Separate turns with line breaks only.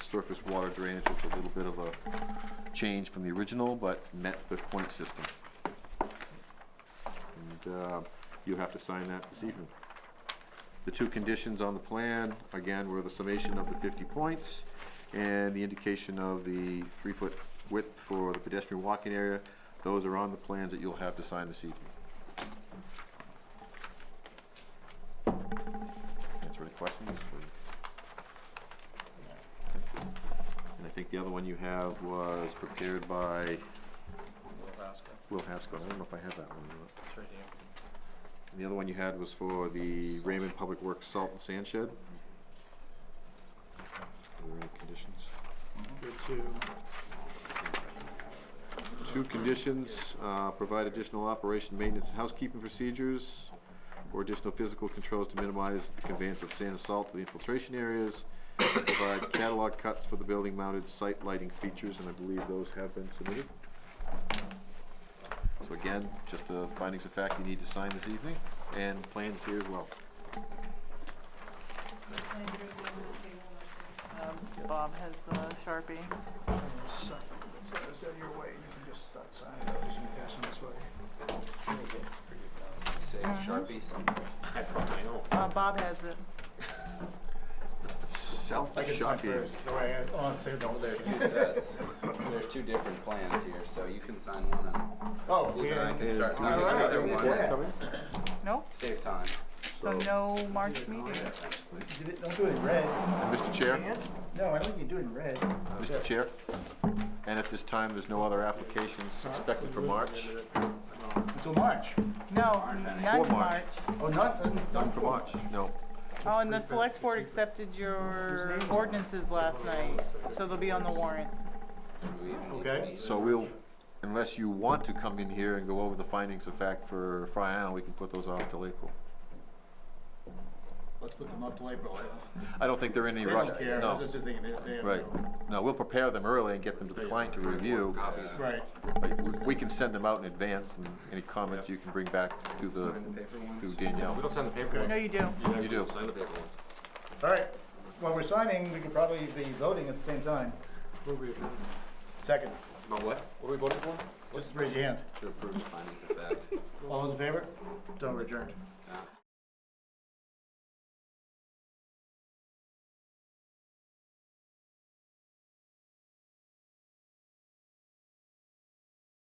surface water drainage, it's a little bit of a change from the original, but met the point system. And uh, you have to sign that this evening. The two conditions on the plan, again, were the summation of the 50 points and the indication of the three-foot width for the pedestrian walking area. Those are on the plans that you'll have to sign this evening. Answer any questions? or- And I think the other one you have was prepared by Will Haskell. I don't know if I have that one. or not. And the other one you had was for the Raymond Public Works Salt and Sand Shed. Are there any conditions? Two conditions, uh, provide additional operation, maintenance, and housekeeping procedures, or additional physical controls to minimize the conveyance of sand and salt to the infiltration areas, provide catalog cuts for the building mounted site lighting features, and I believe those have been submitted. So again, just the findings of fact you need to sign this evening, and plans here as well.
Bob has the Sharpie.
So is that your way? You can just start signing those and pass them this way.
Say Sharpie something. I probably know.
Uh, Bob has it.
Self-shocking.
There's two sets. There's two different plans here, so you can sign one and
Oh,
Luke and I can start signing
Alright.
another one.
Nope,
Save time.
so no March meeting.
Did it- Don't do it in red.
Mr. Chair,
No, I don't think you do it in red.
Mr. Chair, and at this time, there's no other applications expected for March.
Until March.
No,
March.
not
Or
in
March.
March.
Oh, not,
None
not
for March, no.
Oh, and the select board accepted your ordinances last night, so they'll be on the warrant.
Do we even need
Okay.
to meet?
So we'll, unless you want to come in here and go over the findings of fact for Fry Island, we can put those off till April.
Let's put them up till April.
I don't think they're in any rush, no.
just thinking they, they.
Right, no, we'll prepare them early and get them to the client to review.
Right.
But we- We can send them out in advance, and any comments you can bring back to the,
Sign the paper ones.
to Danielle.
Don't sign the paper
No,
one.
you do.
You do.
Sign the paper one.
All right. While we're signing, we could probably be voting at the same time. Second.
No, what? What are we voting for?
Just raise your hand.
To approve the findings of fact.
All those in favor? Don't adjourn.
Yeah.